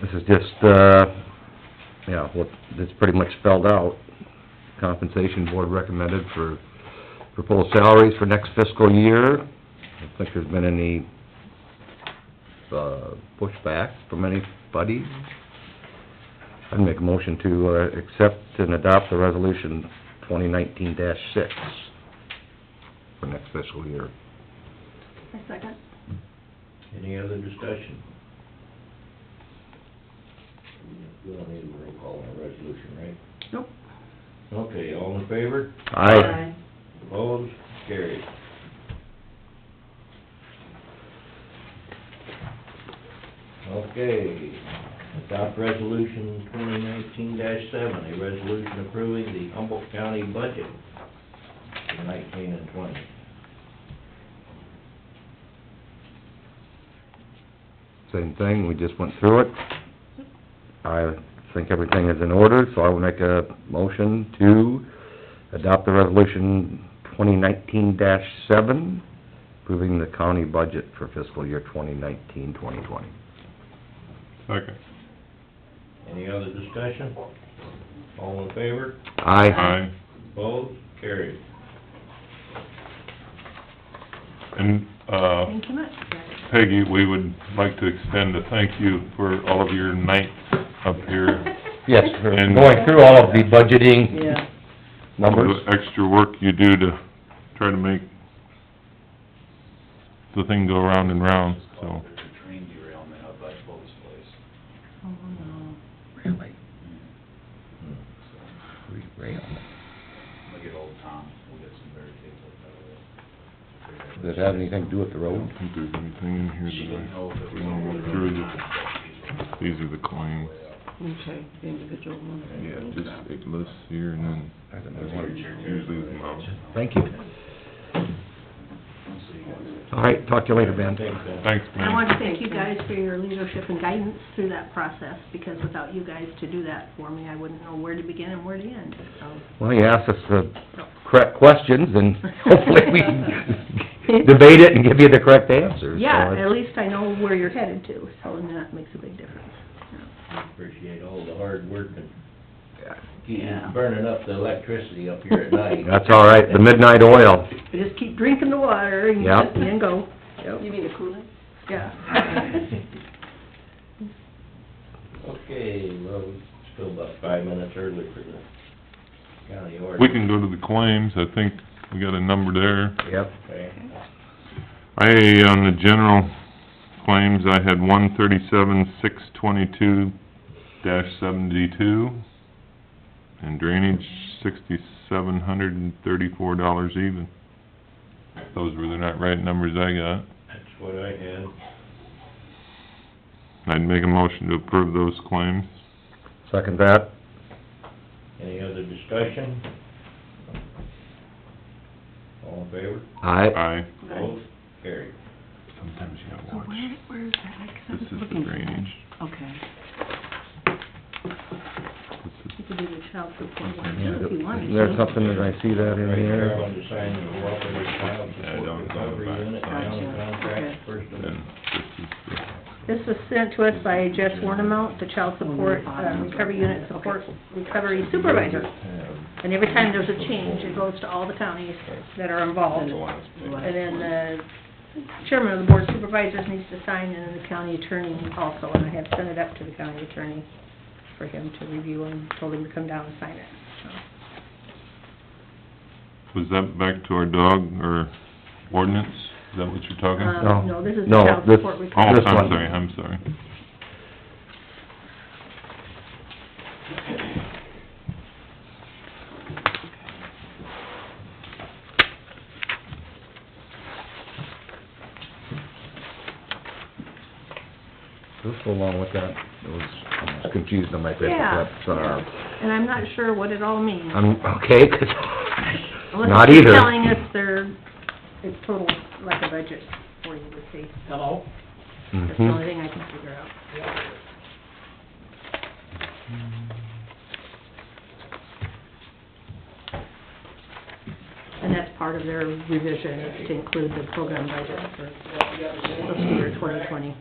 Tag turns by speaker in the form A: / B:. A: This is just, uh, yeah, what, it's pretty much spelled out. Compensation Board recommended for proposed salaries for next fiscal year. I don't think there's been any, uh, pushback from anybody. I'd make a motion to, uh, accept and adopt the resolution twenty nineteen six for next fiscal year.
B: A second.
C: Any other discussion? We don't need a roll call on a resolution, right?
B: Nope.
C: Okay, all in favor?
A: Aye.
C: Opposed? Carried. Okay, adopt resolution twenty nineteen seven, a resolution approving the Humboldt County budget for nineteen and twenty.
A: Same thing, we just went through it. I think everything is in order, so I will make a motion to adopt the resolution twenty nineteen seven, approving the county budget for fiscal year 2019-2020.
D: Second.
C: Any other discussion? All in favor?
A: Aye.
D: Aye.
C: Opposed? Carried.
D: And, uh,
B: Thank you much.
D: Peggy, we would like to extend a thank you for all of your nights up here.
A: Yes, we're
D: And-
A: going through all of the budgeting
E: Yeah,
A: numbers.
D: All the extra work you do to try to make the thing go round and round, so.
F: There's a train derailment up by Foley's place.
E: oh, no.
A: Really?
F: So,
A: Does
F: We'll get old Tom, we'll get some barricades up that way.
A: it have anything to do with the
D: I
A: road?
D: don't think there's anything in
F: She
D: here
F: didn't
D: that I
F: know if it was
D: wanna
F: over
D: look
F: the
D: through.
F: road or
D: the-
F: not, but
D: These are the claims.
E: Okay, the individual one.
D: Yeah, just, it lists here and then,
A: I don't
D: there's
A: know.
D: like usually the amount.
A: Thank you.
F: these were- so you guys-
A: All right, talk to you later, Ben.
D: Thanks,
B: I want to
D: man.
B: thank you guys for your leadership and guidance through that process, because without you guys to do that for me, I wouldn't know where to begin and where to end, so.
A: Well, you asked us the correct questions, and hopefully we can debate it and give you the correct answers. so
B: Yeah,
A: it's-
B: at least I know where you're headed to, so and that makes a big difference.
C: Appreciate all the hard work and keep
B: Yeah.
C: burning up the electricity up here at night.
A: That's all right, the midnight oil.
B: You just keep drinking the water and
A: Yep.
B: just- and go,
E: You mean the Kool-Aid?
B: yeah.
C: Okay, well, we're still about five minutes early for the county order.
D: We can go to the claims, I think we got a number there.
A: Yep.
C: Okay.
D: I, on the general claims, I had one thirty-seven, six twenty-two dash seventy-two, and drainage, sixty-seven hundred and thirty-four dollars even. Those were the not right numbers I got.
C: That's what I had.
D: I'd make a motion to approve those claims.
A: Second that.
C: Any other discussion? All in favor?
A: Aye.
D: Aye.
C: Opposed? Carried.
D: Sometimes you gotta
E: So
D: watch.
E: where, where is that? Like, 'cause I
D: This
E: was
D: is the
E: looking for that.
D: drainage.
E: Okay.
D: This
B: You
D: is,
B: could do the child support one too, if you wanted
A: Isn't
B: to.
A: there something that I see that in
C: Right here, I
A: there?
C: want to sign the cooperative child
D: Yeah, I don't
C: support
D: know
C: recovery
D: about
C: unit,
D: that.
C: county
E: Gotcha,
C: contract, first of
D: then, this
B: This
D: is
B: was sent to us by Jess Warnemount, the Child Support, uh, Recovery Unit Support Recovery Supervisor. And every time there's a change, it goes to all the counties that are involved.
D: the last page.
B: And then the chairman of the board of supervisors needs to sign, and then the county attorney also, and I have sent it up to the county attorney for him to review and told him to come down and sign it, so.
D: Was that back to our dog or ordinance? Is that what you're talking?
B: Uh,
A: No.
B: No, this is
A: No,
B: child
A: this-
B: support
D: Oh, I'm
B: recovery.
A: this one.
D: sorry, I'm sorry.
A: This go along with that, it was, I was confused on my paper
B: Yeah,
A: clip, sorry.
B: and I'm not sure what it all means.
A: I'm, okay, 'cause,
B: Unless
A: not
B: they're
A: either.
B: telling us they're, it's total, like a budget for you to see.
E: Hello?
B: That's the only
A: Mhm.
B: thing I can figure out. And that's part of their revision, is to include the program budget for fiscal year twenty twenty.